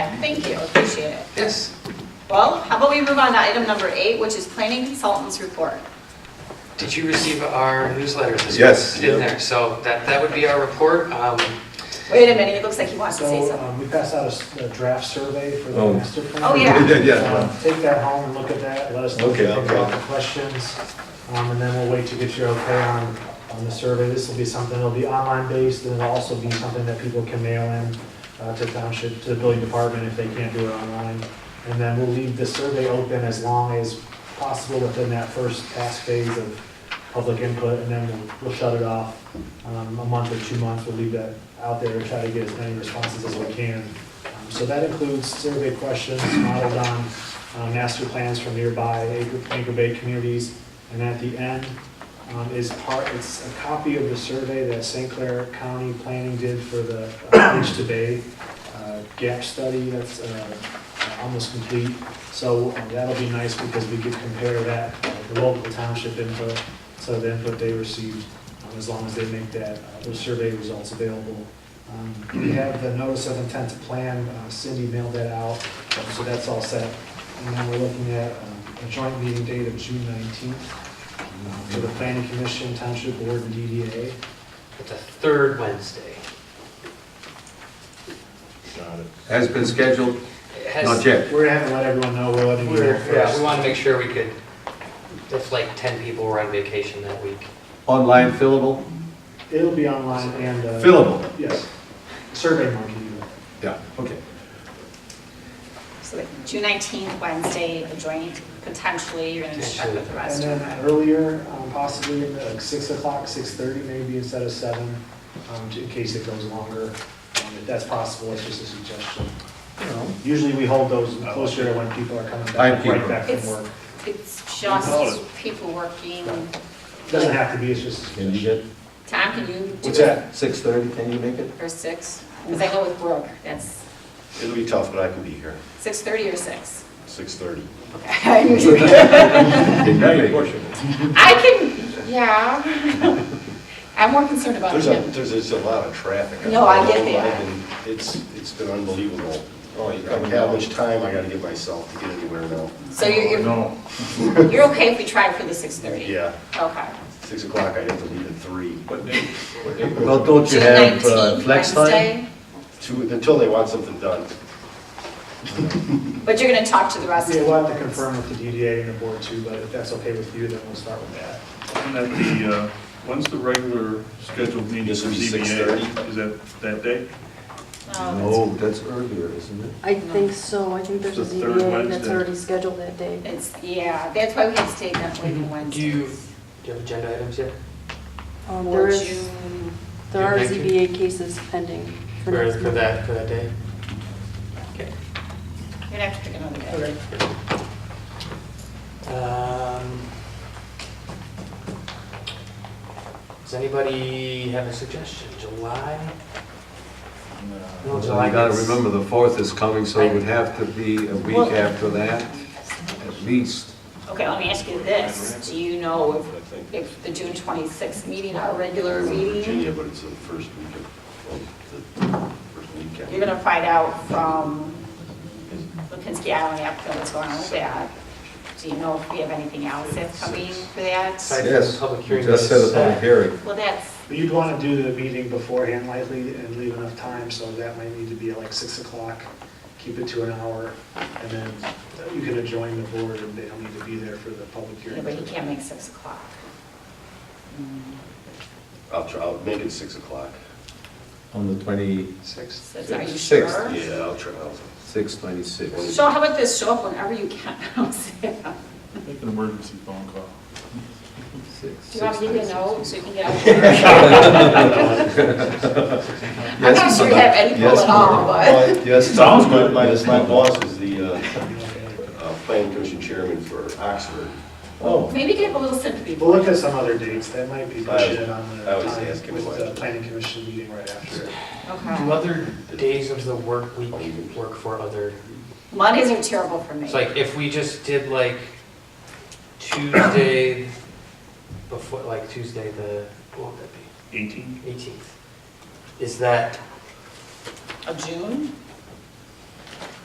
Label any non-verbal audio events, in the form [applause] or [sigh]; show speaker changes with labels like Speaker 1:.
Speaker 1: Thank you, appreciate it.
Speaker 2: Yes.
Speaker 1: Well, how about we move on to item number eight, which is planning consultants report.
Speaker 2: Did you receive our newsletter this week?
Speaker 3: Yes.
Speaker 2: It's in there, so that, that would be our report. Um,
Speaker 1: Wait a minute, it looks like he wants to say
Speaker 4: So
Speaker 1: something.
Speaker 4: um, we passed out a s- a draft survey for the
Speaker 3: Oh.
Speaker 4: master plan.
Speaker 1: Oh, yeah.
Speaker 3: [laughs] Yeah, yeah.
Speaker 4: Um, Take that home and look at that, let us know if
Speaker 3: Okay,
Speaker 4: you
Speaker 3: I'll
Speaker 4: have
Speaker 3: go.
Speaker 4: any questions. Um, And then we'll wait to get your okay on, on the survey. This will be something, it'll be online based and it'll also be something that people can mail in uh, to township, to the building department if they can't do it online. And then we'll leave the survey open as long as possible within that first task phase of public input and then we'll- we'll shut it off. Um, A month or two months, we'll leave that out there and try to get as many responses as we can. Um, So that includes survey questions modeled on uh, master plans from nearby Anchor Anchor Bay communities. And at the end um, is part, it's a copy of the survey that St. Clair County Planning did for the uh, Beach to Bay uh, gap study that's uh, almost complete. So um, that'll be nice because we could compare that, uh, the local township input, so the input they received, um, as long as they make that, uh, those survey results available. Um, We have the notice of intent to plan, uh, Cindy mailed that out, um, so that's all set. And then we're looking at um, a joint meeting date of June 19th um, for the planning commission, township board, and DDA.
Speaker 2: The third Wednesday.
Speaker 3: Has been scheduled,
Speaker 2: It has-
Speaker 3: not yet.
Speaker 4: We're gonna have to let everyone know, we're letting you know
Speaker 2: We're, yeah, we
Speaker 4: first.
Speaker 2: want to make sure we could, if like 10 people were on vacation that week.
Speaker 3: Online fillable?
Speaker 4: It'll be online and. uh,
Speaker 3: Fillable.
Speaker 4: Yes. Survey monkey. you know.
Speaker 3: Yeah, okay.
Speaker 1: So like June 19th, Wednesday, a joint, potentially, you're going to check with the
Speaker 4: And
Speaker 1: rest of
Speaker 4: then
Speaker 1: them.
Speaker 4: earlier, um, possibly in the like, six o'clock, six thirty maybe instead of seven, um, in case it goes longer. Um, If that's possible, it's just a suggestion. Usually we hold those closer to when people are coming
Speaker 3: I'm
Speaker 4: back,
Speaker 3: people.
Speaker 4: right back
Speaker 1: It's-
Speaker 4: from work.
Speaker 1: It's just people working.
Speaker 4: Doesn't have to be, it's just a
Speaker 3: Can you
Speaker 4: suggestion.
Speaker 3: get
Speaker 1: Tom, can you do
Speaker 4: What's
Speaker 1: it
Speaker 4: that?
Speaker 3: six thirty, can you make it?
Speaker 1: for six? Because I go with Brooke, that's
Speaker 5: It'll be tough, but I can be here,
Speaker 1: 6:30 or six.
Speaker 5: 6:30.
Speaker 1: Okay. [laughs]
Speaker 3: Can you make it?
Speaker 1: I can, yeah. [laughs] I'm more concerned about
Speaker 5: There's a,
Speaker 1: him.
Speaker 5: there's, there's a lot of traffic.
Speaker 1: No, I get that.
Speaker 5: that. It's, it's been unbelievable. I don't have much time I gotta give myself to get anywhere now.
Speaker 1: So you're,
Speaker 3: No.
Speaker 1: you're- you're okay if we try for the 6:30?
Speaker 5: Oh, Yeah,
Speaker 1: Okay.
Speaker 5: 6 o'clock, I have to leave at 3.
Speaker 3: Well, don't you
Speaker 1: June
Speaker 3: have uh,
Speaker 1: 19th,
Speaker 3: flex time?
Speaker 1: Wednesday,
Speaker 5: Two, until they want something done.
Speaker 1: But you're going to talk to the rest of
Speaker 4: Yeah,
Speaker 1: them?
Speaker 4: we'll have to confirm with the DDA and the board too, but if that's okay with you, then we'll start with that.
Speaker 6: And at the, uh, when's the regular scheduled meeting for
Speaker 5: This will be
Speaker 6: ZBA?
Speaker 5: 6:30.
Speaker 6: Is that that day?
Speaker 1: No.
Speaker 3: No, Oh, that's earlier, isn't it?
Speaker 7: I think so, I think there's a
Speaker 6: It's the third
Speaker 7: ZBA that's
Speaker 6: Wednesday.
Speaker 7: already scheduled that day.
Speaker 1: It's, yeah, that's why we have to take that way to
Speaker 2: Do
Speaker 1: Wednesday.
Speaker 2: you, do you have agenda items yet?
Speaker 7: Um,
Speaker 1: Or
Speaker 7: There is,
Speaker 1: June,
Speaker 7: there are
Speaker 2: June 19th.
Speaker 7: ZBA cases pending for
Speaker 2: For,
Speaker 7: next
Speaker 2: for
Speaker 7: month.
Speaker 2: that, for that day? Okay.
Speaker 1: you're going to have to pick another day.
Speaker 2: Um, Does anybody have a suggestion? July? No,
Speaker 3: You
Speaker 2: July
Speaker 3: gotta
Speaker 2: gets-
Speaker 3: remember, the fourth is coming, so it would have to be a week after that, at least.
Speaker 1: Okay, let me ask you this. Do you know
Speaker 5: I think
Speaker 1: if, if the June 26th meeting, our regular
Speaker 5: It's in
Speaker 1: meeting,
Speaker 5: Virginia, but it's the first week of, well, the first
Speaker 1: you're
Speaker 5: weekend.
Speaker 1: going to find out from Lipinski Island applicant what's going on with that? Do you know if we have anything else that's coming for that?
Speaker 2: Site- Public hearing
Speaker 3: Just set a
Speaker 2: is
Speaker 1: uh,
Speaker 3: public
Speaker 2: set.
Speaker 3: hearing.
Speaker 1: Well, that's,
Speaker 4: But You'd want to do the meeting beforehand likely and leave enough time, so that might need to be at like 6 o'clock, keep it to an hour, and then you can adjoin the board, and they'll need to be there for the public
Speaker 1: yeah,
Speaker 4: hearing.
Speaker 1: but you can't make 6 o'clock.
Speaker 5: I'll try, I'll make it 6 o'clock.
Speaker 3: On the twenty-six,
Speaker 4: Six.
Speaker 1: So Are you
Speaker 3: Sixth,
Speaker 1: sure?
Speaker 5: Yeah, I'll try, I'll,
Speaker 3: twenty-six.
Speaker 1: So how about this, show up whenever you can. [laughs] Do
Speaker 6: Make an emergency phone call.
Speaker 3: six,
Speaker 1: you want me to
Speaker 3: six,
Speaker 1: know so you can get out there?
Speaker 3: [laughs]
Speaker 1: I'm not
Speaker 3: Yes,
Speaker 1: sure you
Speaker 3: ma'am.
Speaker 1: have any pull
Speaker 3: Yes,
Speaker 1: at all, but.
Speaker 5: Well, Yes, sounds good. My, my boss is the uh, uh, planning commission chairman for Oxford.
Speaker 3: Oh,
Speaker 1: Maybe get a little sympathy.
Speaker 4: We'll look at some other dates, that might be
Speaker 5: I-
Speaker 4: pushing it on the
Speaker 5: I always ask
Speaker 4: time
Speaker 5: him
Speaker 4: with
Speaker 5: why.
Speaker 4: the planning commission meeting right after.
Speaker 2: Do
Speaker 1: Okay.
Speaker 2: other days of the work week work for other,
Speaker 1: Mondays are terrible for me.
Speaker 2: it's like if we just did like Tuesday before, like Tuesday the, what would that
Speaker 6: 18?
Speaker 2: be, 18th? Is that,
Speaker 1: A June?